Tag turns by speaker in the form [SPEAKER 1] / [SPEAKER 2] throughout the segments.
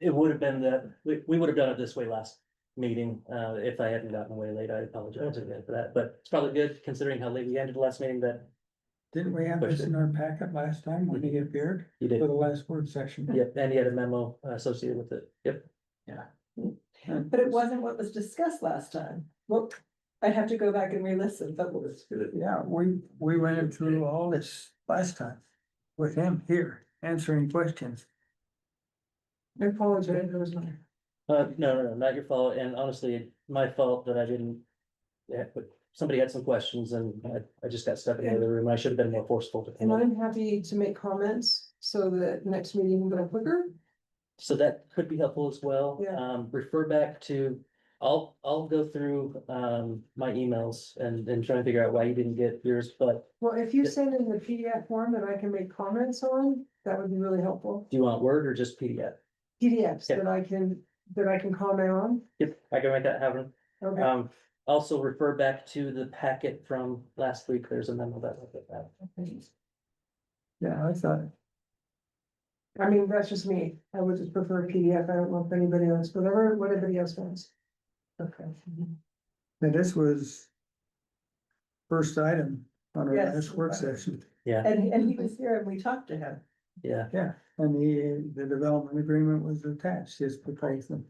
[SPEAKER 1] it would have been that, we, we would have done it this way last meeting, uh, if I hadn't gotten way late, I apologize again for that, but it's probably good considering how late we ended the last meeting that
[SPEAKER 2] Didn't we have this in our packet last time when he appeared
[SPEAKER 1] you did.
[SPEAKER 2] for the last word section?
[SPEAKER 1] Yep, and he had a memo uh, associated with it, yep.
[SPEAKER 3] But it wasn't what was discussed last time. Well, I'd have to go back and re-listen, but we'll just-
[SPEAKER 2] Yeah, we, we went through all this last time with him here answering questions.
[SPEAKER 3] I apologize, it was my.
[SPEAKER 1] Uh, no, no, no, not your fault, and honestly, my fault that I didn't. Yeah, but somebody had some questions and I, I just got stuck in the other room, I should have been more forceful. to
[SPEAKER 3] And
[SPEAKER 1] handle it.
[SPEAKER 3] I'm happy to make comments so that next meeting will go quicker.
[SPEAKER 1] So that could be helpful as well.
[SPEAKER 3] Yeah.
[SPEAKER 1] Um, refer back to, I'll, I'll go through, um, my emails and, and try and figure out why you didn't get yours, but
[SPEAKER 3] Well, if you send in the PDF form that I can make comments on, that would be really helpful.
[SPEAKER 1] do you want Word or just PDF?
[SPEAKER 3] PDFs
[SPEAKER 1] Yeah.
[SPEAKER 3] that I can, that I can comment on.
[SPEAKER 1] Yep, I can make that happen.
[SPEAKER 3] Okay,
[SPEAKER 1] Um, also refer back to the packet from last week, there's a memo that.
[SPEAKER 2] Yeah, I thought,
[SPEAKER 3] I mean, that's just me. I would just prefer PDF. I don't know if anybody else, whatever, what anybody else wants. Okay.
[SPEAKER 2] that this was first item on our
[SPEAKER 3] Yes.
[SPEAKER 2] last work session.
[SPEAKER 1] Yeah,
[SPEAKER 3] And, and he was here and we talked to him.
[SPEAKER 1] yeah.
[SPEAKER 2] Yeah, and the, the development agreement was attached, his proposal.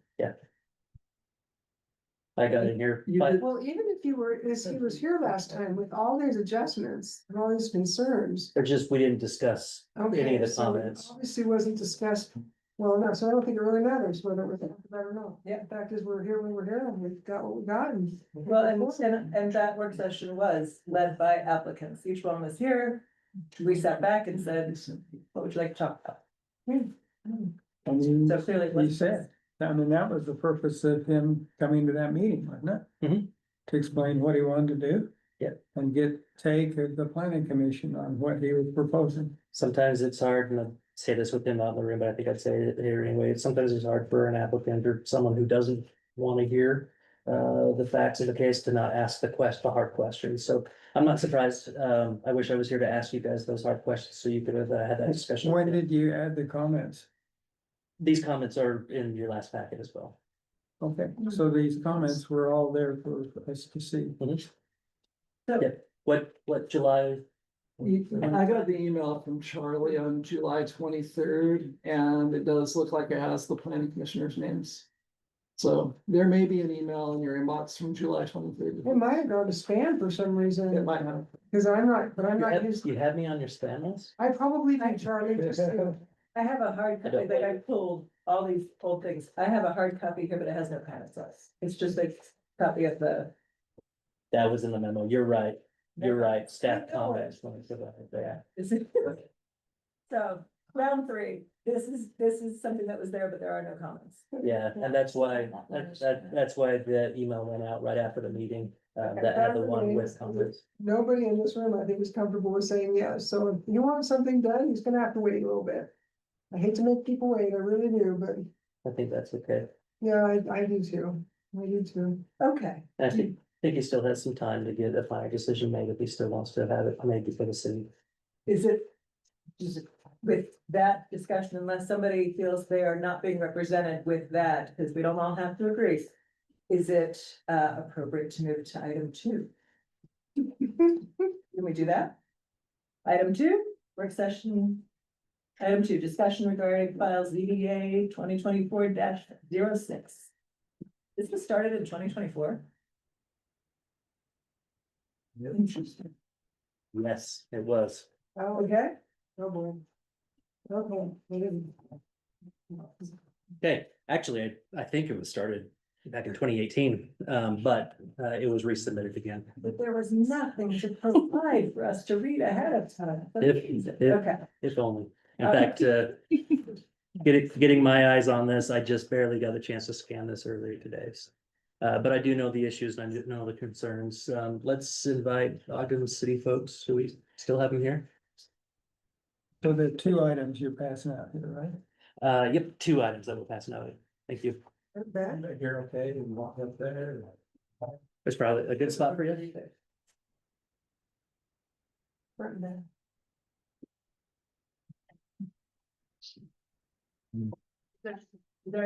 [SPEAKER 1] I got in here.
[SPEAKER 2] You
[SPEAKER 1] but-
[SPEAKER 2] did-
[SPEAKER 3] Well, even if you were, as he was here last time with all these adjustments and all these concerns.
[SPEAKER 1] Or just, we didn't discuss. Any of the
[SPEAKER 3] okay, so it
[SPEAKER 1] comments.
[SPEAKER 3] Obviously wasn't discussed well enough, so I don't think it really matters whether it was talked about or not. Yeah. Fact is, we're here, when we're here, and we've got what we got and.
[SPEAKER 4] Well, and, and, and that work session was led by applicants. Each one was here. We sat back and said, what would you like to talk about?
[SPEAKER 2] I mean,
[SPEAKER 4] So clearly. it
[SPEAKER 2] he
[SPEAKER 4] wasn't-
[SPEAKER 2] said, I mean, that was the purpose of him coming to that meeting, wasn't it?
[SPEAKER 1] Mhm.
[SPEAKER 2] To explain what he wanted to do.
[SPEAKER 1] Yep.
[SPEAKER 2] And get take of the planning commission on what he was proposing.
[SPEAKER 1] Sometimes it's hard, and I say this with him out in the room, but I think I'd say it here anyway, sometimes it's hard for an applicant or someone who doesn't want to hear. Uh, the facts of the case to not ask the quest, the hard questions, so I'm not surprised, um, I wish I was here to ask you guys those hard questions, so you could have uh, had that discussion.
[SPEAKER 2] When did you add the comments?
[SPEAKER 1] These comments are in your last packet as well.
[SPEAKER 2] Okay, so these comments were all there for us to see.
[SPEAKER 1] What, what July?
[SPEAKER 5] I got the email from Charlie on July twenty-third, and it does look like it has the planning commissioners' names. So there may be an email in your inbox from July twenty-third.
[SPEAKER 3] It might have gone to spam for some
[SPEAKER 5] It
[SPEAKER 3] reason,
[SPEAKER 5] might have.
[SPEAKER 3] because I'm not, but I'm
[SPEAKER 1] You
[SPEAKER 3] not
[SPEAKER 1] had-
[SPEAKER 3] used,
[SPEAKER 1] You had me on your spam list?
[SPEAKER 3] I probably think Charlie just.
[SPEAKER 4] I have a hard
[SPEAKER 1] I
[SPEAKER 4] copy
[SPEAKER 1] don't
[SPEAKER 4] that
[SPEAKER 1] like
[SPEAKER 4] I pulled, all these old things. I have a hard copy here, but it has no comments on it. It's just a copy of the.
[SPEAKER 1] That was in the memo, you're right, you're right, staff
[SPEAKER 4] I know it.
[SPEAKER 1] comments. let me put that there.
[SPEAKER 4] Is it- So round three, this is, this is something that was there, but there are no comments.
[SPEAKER 1] Yeah, and that's why, that, that, that's why the email went out right after the meeting, uh, that had the one with comments.
[SPEAKER 3] Nobody in this room, I think, is comfortable with saying yes, so if you want something done, he's gonna have to wait a little bit. I hate to make people wait, I really do, but
[SPEAKER 1] I think that's okay.
[SPEAKER 3] yeah, I, I do too, I do too.
[SPEAKER 4] Okay,
[SPEAKER 1] And I think, think he still has some time to get a final decision made if he still wants to have it made before the city.
[SPEAKER 4] is it, is it with that discussion, unless somebody feels they are not being represented with that, because we don't all have to agree. Is it uh appropriate to move to item two? Can we do that? Item two, work session. Item two, discussion regarding files ZDA twenty twenty-four 6 This was started in twenty twenty-four. Interesting.
[SPEAKER 1] Yes, it was.
[SPEAKER 3] Oh,
[SPEAKER 4] Okay.
[SPEAKER 3] oh boy. Okay, I didn't.
[SPEAKER 1] Okay, actually, I, I think it was started back in twenty eighteen, um, but, uh, it was resubmitted again.
[SPEAKER 4] But there was nothing to provide for us to read ahead of time.
[SPEAKER 1] If- if-
[SPEAKER 4] Okay,
[SPEAKER 1] If only. In fact, uh, getting, getting my eyes on this, I just barely got a chance to scan this earlier today. so. Uh, but I do know the issues and I do know the concerns. Um, let's invite Ogden City folks. Do we still have them here?
[SPEAKER 2] So the two items you're passing out here, right?
[SPEAKER 1] Uh, yep, two items that we'll pass now. Thank you.
[SPEAKER 3] That,
[SPEAKER 2] Here, okay, and walk up there.
[SPEAKER 1] That's probably a good spot for you.
[SPEAKER 3] that.